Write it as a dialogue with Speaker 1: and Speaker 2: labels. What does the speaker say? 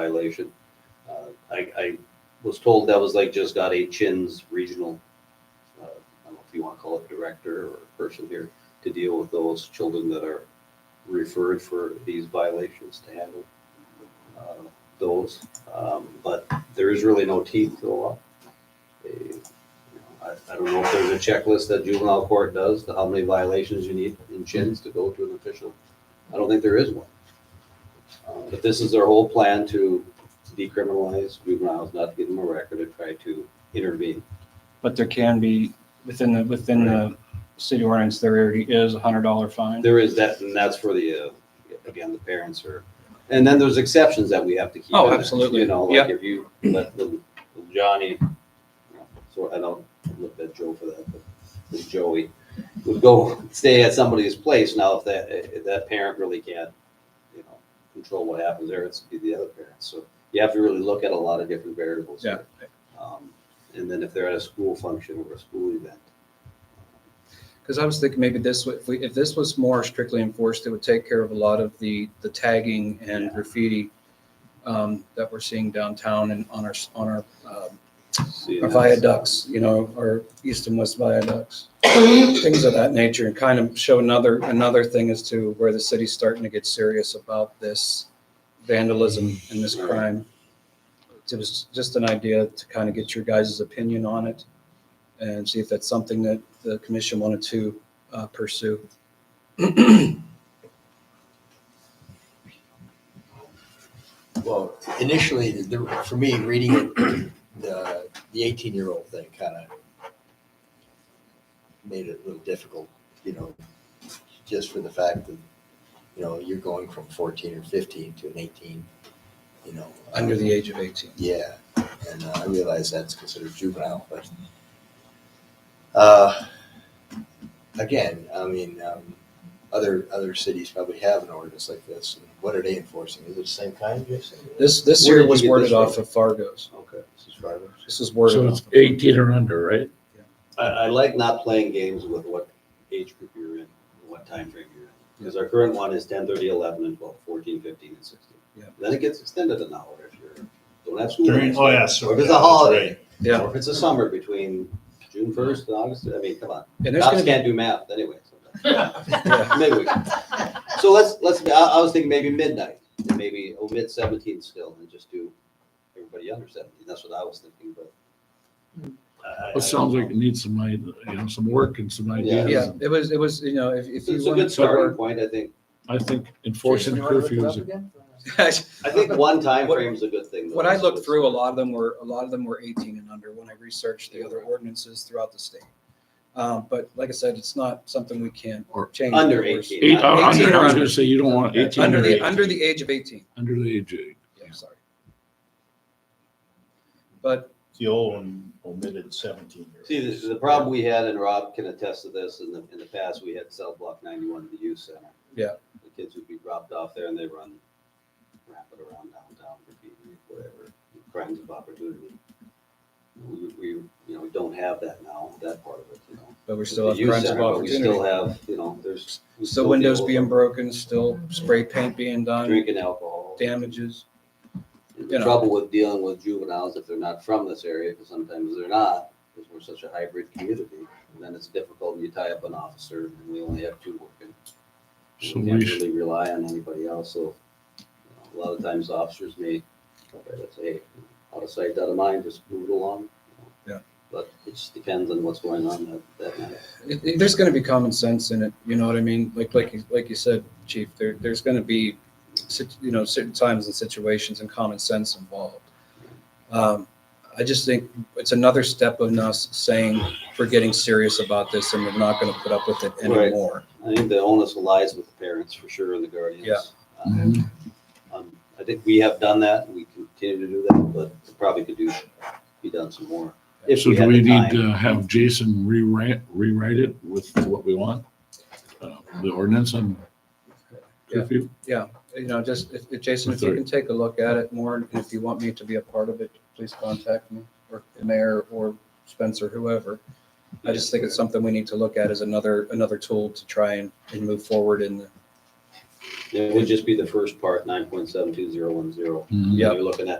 Speaker 1: violation. Uh, I, I was told that was like just got a Chin's regional, uh, I don't know if you want to call it director or person here, to deal with those children that are referred for these violations to handle uh, those. Um, But there is really no teeth to the law. They- you know, I, I don't know if there's a checklist that juvenile court does, to how many violations you need in chins to go to an official. I don't think there is one. Uh, But this is their whole plan to decriminalize juveniles, not to give them a record, and try to intervene.
Speaker 2: But there can be, within the, within the city ordinance, there already is a hundred dollar fine.
Speaker 1: There is that, and that's for the, uh, again, the parents are, and then there's exceptions that we have to keep.
Speaker 2: Oh,
Speaker 1: in there,
Speaker 2: absolutely.
Speaker 1: You know, like
Speaker 2: Yep.
Speaker 1: if you let little little Johnny, you know, so I don't look at Joe for that, but this Joey would go stay at somebody's place. Now, if that, if that parent really can't, you know, control what happens there, it's be the other parent. So you have to really look at a lot of different variables.
Speaker 2: Yeah.
Speaker 1: Um, And then if they're at a school function or a school event,
Speaker 2: Because I was thinking maybe this, wa- if we, if this was more strictly enforced, it would take care of a lot of the, the tagging and graffiti um, that we're seeing downtown and on our, s- on our um,
Speaker 1: see,
Speaker 2: our
Speaker 1: and that's-
Speaker 2: viaducts, you know, our east and west viaducts. Things of that nature and kind of show another, another thing as to where the city's starting to get serious about this vandalism and this
Speaker 1: Right.
Speaker 2: crime. It was just an idea to kind of get your guys' opinion on it and see if that's something that the commission wanted to uh, pursue.
Speaker 3: Well, initially, the, the- for me, reading it, the, the eighteen-year-old thing kind of made it a little difficult, you know, just for the fact that, you know, you're going from fourteen or fifteen to an eighteen, you know.
Speaker 2: Under the age of 18.
Speaker 3: Yeah, and uh, I realize that's considered juvenile, but uh, again, I mean, um, other other cities probably have an ordinance like this. And what are they enforcing? Is it the same kind, Jason?
Speaker 2: This, this
Speaker 3: Where
Speaker 2: here
Speaker 3: did
Speaker 2: was
Speaker 3: you get this
Speaker 2: worded off
Speaker 3: from?
Speaker 2: of Fargo's.
Speaker 1: Okay.
Speaker 3: This is Fargo.
Speaker 2: This is worded
Speaker 4: So
Speaker 2: off.
Speaker 4: it's
Speaker 2: of-
Speaker 4: 18 or under, right?
Speaker 1: I, I like not playing games with what age group you're in, and what time frame you're in. Because our current one is 10, 30, 11, and 12, 14, 15, and 16.
Speaker 2: Yeah.
Speaker 1: Then it gets extended an hour if you're, don't have school.
Speaker 5: During,
Speaker 1: next
Speaker 5: oh,
Speaker 1: week.
Speaker 5: yeah,
Speaker 1: Or
Speaker 5: so.
Speaker 1: if it's
Speaker 5: yeah,
Speaker 1: a
Speaker 5: that's
Speaker 1: holiday,
Speaker 5: right.
Speaker 2: Yeah.
Speaker 1: or if it's a summer between June 1st and August, I mean, come on.
Speaker 2: And there's
Speaker 1: Cops
Speaker 2: going to
Speaker 1: can't do math anyway. sometimes.
Speaker 2: be, yeah.
Speaker 1: Maybe we can. So let's, let's, I, I was thinking maybe midnight, and maybe omit 17 still and just do everybody under 17. That's what I was thinking, but. I- I-
Speaker 4: It sounds like it needs some, id- you know, some work and some
Speaker 2: Yeah,
Speaker 4: ideas.
Speaker 2: it was, it was, you know, if, if
Speaker 1: It's
Speaker 2: you
Speaker 1: it's a good
Speaker 2: wanted to
Speaker 1: starting
Speaker 2: work.
Speaker 1: point, I think.
Speaker 4: I think enforcing curfews,
Speaker 1: I think one time
Speaker 2: What-
Speaker 1: frame is a good thing. though.
Speaker 2: When I looked through, a lot of them were, a lot of them were eighteen and under when I researched the other ordinances throughout the state. Um, but like I said, it's not something we can
Speaker 4: Or
Speaker 2: change.
Speaker 1: Under
Speaker 2: Of course.
Speaker 1: 18.
Speaker 4: eight, uh, under, I was
Speaker 2: 18 or
Speaker 4: gonna say, you don't want 18
Speaker 2: Under
Speaker 4: or
Speaker 2: the, under
Speaker 4: 18,
Speaker 2: the age of eighteen,
Speaker 4: under the age. of eight.
Speaker 2: yeah, sorry. But,
Speaker 5: The old one omitted seventeen.
Speaker 1: See, the, the problem we had, and Rob can attest to this, in the, in the past, we had cell block ninety-one at the youth center.
Speaker 2: Yeah.
Speaker 1: The kids would be dropped off there and they run rapid around downtown, graffiti, whatever, crimes of opportunity. We, we, you know, we don't have that now, that part of it, you know.
Speaker 2: but we're still
Speaker 1: The
Speaker 2: have
Speaker 1: youth
Speaker 2: crimes of
Speaker 1: center, but We still
Speaker 2: opportunity.
Speaker 1: have, you know, there's. we
Speaker 2: Still
Speaker 1: deal
Speaker 2: windows
Speaker 1: with
Speaker 2: being broken, still spray paint being done,
Speaker 1: Drinking alcohol.
Speaker 2: damages.
Speaker 1: And
Speaker 2: you
Speaker 1: The
Speaker 2: know.
Speaker 1: trouble with dealing with juveniles, if they're not from this area, because sometimes they're not, because we're such a hybrid community, then it's difficult, and you tie up an officer, and we only have two working. We
Speaker 4: So
Speaker 1: can't
Speaker 4: we should,
Speaker 1: really rely on anybody else, so you know, a lot of times officers may, okay, let's say, out of sight, out of mind, just move it along. you know.
Speaker 2: Yeah.
Speaker 1: But it just depends on what's going on that, that night.
Speaker 2: it, it- there's going to be common sense in it. You know what I mean? Like like you, like you said, Chief. There there's going to be, sit- you know, certain times and situations and common sense involved. Um, I just think it's another step of us saying we're getting serious about this and we're not going to put up with it
Speaker 1: Right.
Speaker 2: anymore.
Speaker 1: I think the onus lies with the parents for sure and the guardians.
Speaker 2: Yeah. Mm-hmm.
Speaker 1: Um, um, I think we have done that and we continue to do that, but it probably could do, be done some more. if
Speaker 4: so do
Speaker 1: had
Speaker 4: we
Speaker 1: the time.
Speaker 4: need to have Jason rewrite, rewrite it with what we want? Uh, The ordinance on curfew?
Speaker 2: You know, just if, if Jason, if you can take a look at it more, and if you want me to be a part of it, please contact me or the mayor or Spencer, whoever. I just think it's something we need to look at as another another tool to try and, and move forward in the
Speaker 1: It would just be the first part, nine point seven two zero one zero.
Speaker 4: Mhm.
Speaker 2: Yeah.
Speaker 4: Mm-hmm.
Speaker 1: You're looking at